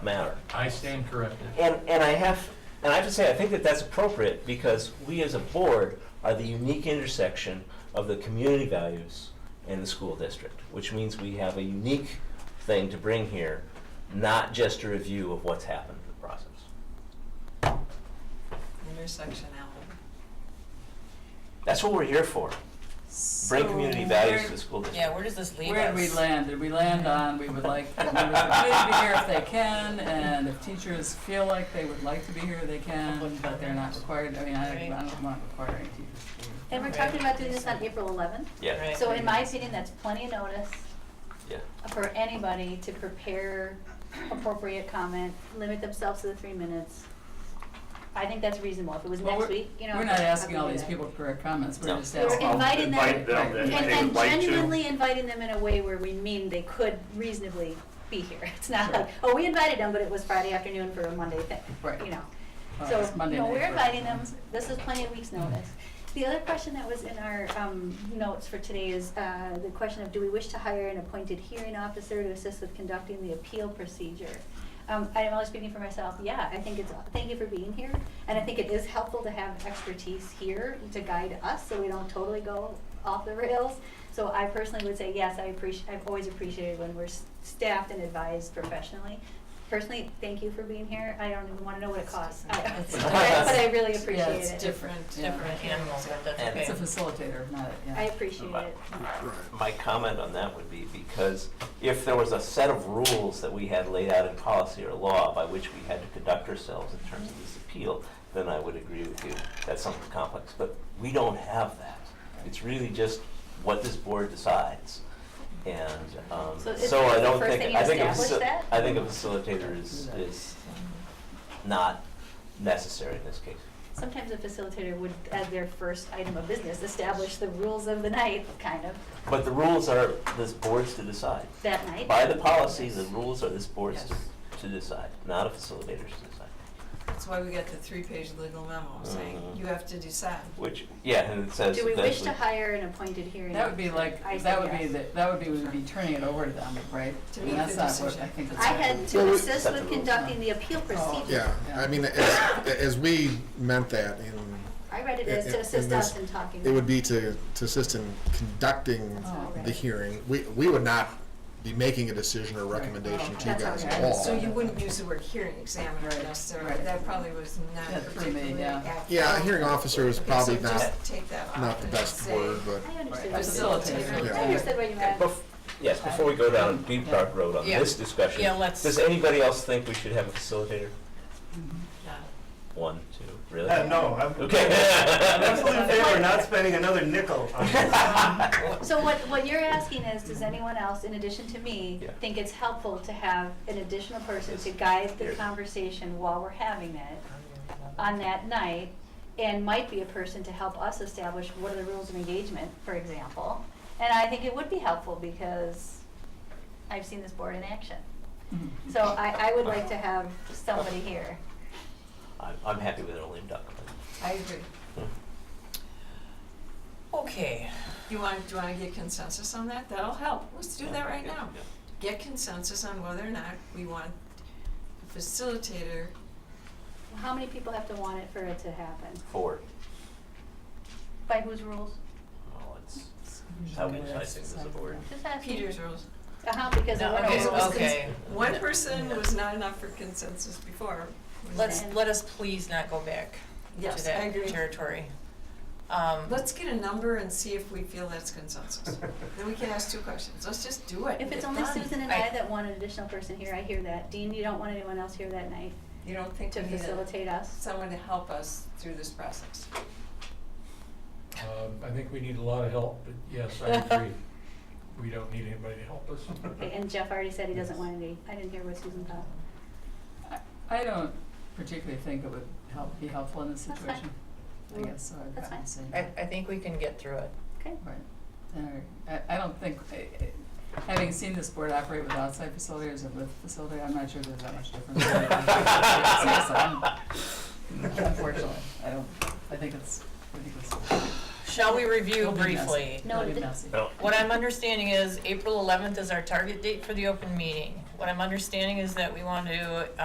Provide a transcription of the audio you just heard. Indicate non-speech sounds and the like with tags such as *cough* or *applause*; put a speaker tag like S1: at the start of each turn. S1: matter.
S2: I stand corrected.
S1: And, and I have, and I have to say, I think that that's appropriate because we as a board are the unique intersection of the community values and the school district, which means we have a unique thing to bring here, not just a review of what's happened in the process.
S3: Intersectionality.
S1: That's what we're here for, bring community
S3: So
S1: values
S3: where-
S1: to the school district.
S4: Yeah, where does this leave us?
S5: Where did we land? Did we land on, we would like the members of the community to be here if they can, and if teachers feel like they would like to be here, they can, but they're not required, I mean, I I don't want requiring teachers to be here.
S6: And we're talking about doing this on April eleventh,
S1: Yeah,
S3: Right.
S6: so in my opinion, that's plenty of notice
S1: yeah.
S6: for anybody to prepare appropriate comment, limit themselves to the three minutes. I think that's reasonable, if it was
S5: Well,
S6: next
S5: we're-
S6: week, you know.
S5: We're not
S6: I'd
S5: asking
S6: probably
S5: all
S6: do
S5: these
S6: that.
S5: people for comments, we're
S1: No.
S5: just
S6: We're
S5: asking.
S2: *laughs*
S6: inviting them.
S7: Invite them,
S5: Right.
S7: if
S6: And,
S7: they
S6: and
S7: would like to.
S6: genuinely inviting them in a way where we mean they could reasonably be here. It's not like, oh, we invited them, but it was Friday afternoon for a Monday thing,
S5: Right.
S6: you know.
S5: Uh,
S6: So,
S5: it's Monday
S6: no,
S5: night
S6: we're
S5: for-
S6: inviting them, this is plenty of weeks' notice. The other question that was in our, um, notes for today is, uh, the question of, do we wish to hire an appointed hearing officer to assist with conducting the appeal procedure? Um, I am only speaking for myself, yeah, I think it's, thank you for being here, and I think it is helpful to have expertise here to guide us, so we don't totally go off the rails. So I personally would say, yes, I appreciate, I've always appreciated when we're s- staffed and advised professionally. Personally, thank you for being here, I don't even wanna know what
S3: *laughs*
S6: it costs, I-
S4: It's
S6: *laughs* but I- but I really
S5: Yeah,
S6: appreciate it.
S5: it's
S4: Different,
S5: Yeah.
S4: different animals, but that's
S1: And-
S4: okay.
S5: It's a facilitator, not, a- yeah.
S6: I appreciate it.
S1: My comment on that would be because if there was a set of rules that we had laid out in policy or law by which we had to conduct ourselves in terms of this appeal, then I would agree with you. That's something complex, but we don't have that. It's really just what this board decides. And um,
S6: So is
S1: so I
S6: that the
S1: don't
S6: first thing
S1: think,
S6: you
S1: I think, a
S6: establish
S1: faci-
S6: that?
S1: I think a facilitator is, is not necessary in this case.
S6: Sometimes a facilitator would, as their first item of business, establish the rules of the night, kind of,
S1: But the rules are this board's to decide.
S6: that night.
S1: By the policy, the rules are this board's
S4: Yes.
S1: to, to decide, not a facilitator's to decide.
S3: That's why we got the three-page legal memo saying
S1: Mhm.
S3: you have to decide.
S1: Which, yeah, and it says.
S6: Do we wish to
S1: eventually-
S6: hire an appointed hearing?
S5: That would be like,
S6: I
S5: that
S6: said
S5: would be,
S6: yes.
S5: the that would be, we'd be turning it over to them, right?
S3: To
S5: And
S3: make
S5: that's
S3: the
S5: not what
S3: decision.
S5: I think that's
S6: I
S5: what-
S6: had
S7: Well,
S6: to
S7: we-
S6: assist
S1: Set the
S6: with
S1: rules.
S6: conducting the appeal procedure.
S7: Yeah, I mean, as, as we meant that in,
S6: I read it as
S7: In-
S6: to
S7: in-
S6: assist
S7: in
S6: us
S7: this-
S6: in talking.
S7: it would be to, to assist in conducting
S5: Oh,
S7: the hearing. We, we would not be making a decision or recommendation to you guys at all.
S3: Oh, So you wouldn't use the word hearing examiner
S5: Right,
S3: necessarily,
S5: right.
S3: that probably was not
S5: That for me,
S3: particularly
S5: yeah.
S3: accurate.
S7: Yeah, a hearing officer is
S3: Okay,
S7: probably
S3: so
S7: not,
S3: just take that off
S7: not the
S3: and
S7: best
S3: say-
S7: word, but.
S6: I
S5: Right.
S6: understood. what you meant.
S5: Facilitator.
S6: I understood what you meant.
S1: Bef- Yes, before we go down Deep Dark Road on
S4: Yeah.
S1: this discussion.
S4: Yeah, let's-
S1: Does anybody else think we should have a facilitator?
S3: No.
S1: One, two, really?
S8: Uh, no, I'm, I'm
S1: Okay.
S8: absolutely in favor of not spending another nickel on this.
S6: So what, what you're asking is, does anyone else, in addition to me,
S1: Yeah.
S6: think it's helpful to have an additional person to guide the
S1: Yes.
S6: conversation while we're having it? on that night and might be a person to help us establish what are the rules of engagement, for example. And I think it would be helpful because I've seen this board in action.
S5: Mhm.
S6: So I, I would like to have somebody here.
S1: *laughs* I'm, I'm happy with only duck.
S3: I agree.
S4: Okay,
S3: You want, do you want to get consensus on that? That'll help. Let's do that right now. Get consensus on whether or not we want a facilitator.
S6: How many people have to want it for it to happen?
S1: Four.
S6: By whose rules?
S1: Well, Oh, it's it's how we decide things as a board.
S6: Just asking.
S3: Peter's rules.
S6: Uh-huh, because I
S4: No,
S6: want
S4: okay,
S6: to.
S3: Rules.
S4: okay.
S1: *laughs*
S3: One person was not enough for consensus before.
S4: Let's, let us please not go back to
S3: Yes, I
S4: that
S3: agree.
S4: territory. Um,
S3: Let's get a number and see if we feel that's *laughs* consensus. Then we can ask two questions. Let's just do it.
S6: If
S3: Get
S6: it's only
S3: done.
S6: Susan and I
S4: I-
S6: that want an additional person here, I hear that. Dean, you don't want anyone else here that night
S3: You don't think we
S6: to
S3: need a-
S6: facilitate us?
S3: someone to help us through this process?
S2: Um, I think we need a lot of help, but yes, I agree. We don't need anybody to help us.
S6: Okay, and Jeff already said he doesn't want any, I didn't hear what Susan thought.
S5: I- I don't particularly think it would help, be helpful in this
S6: That's fine.
S5: situation. I
S6: Mm,
S5: guess, so I'd
S6: that's
S5: probably
S6: fine.
S5: say.
S4: I,
S5: no.
S4: I think we can get through it.
S6: Okay.
S5: Right. Or- I, I don't think, I- I- having seen this board operate with outside facilitators and with facilitator, I'm not sure there's that much difference. Unfortunately, I don't, I think it's, I think it's.
S4: Shall we review
S5: it'll be messy.
S4: briefly?
S6: No,
S5: It'll be
S6: the-
S5: messy.
S1: No.
S4: What I'm understanding is April eleventh is our target date for the open meeting. what I'm understanding is that we want to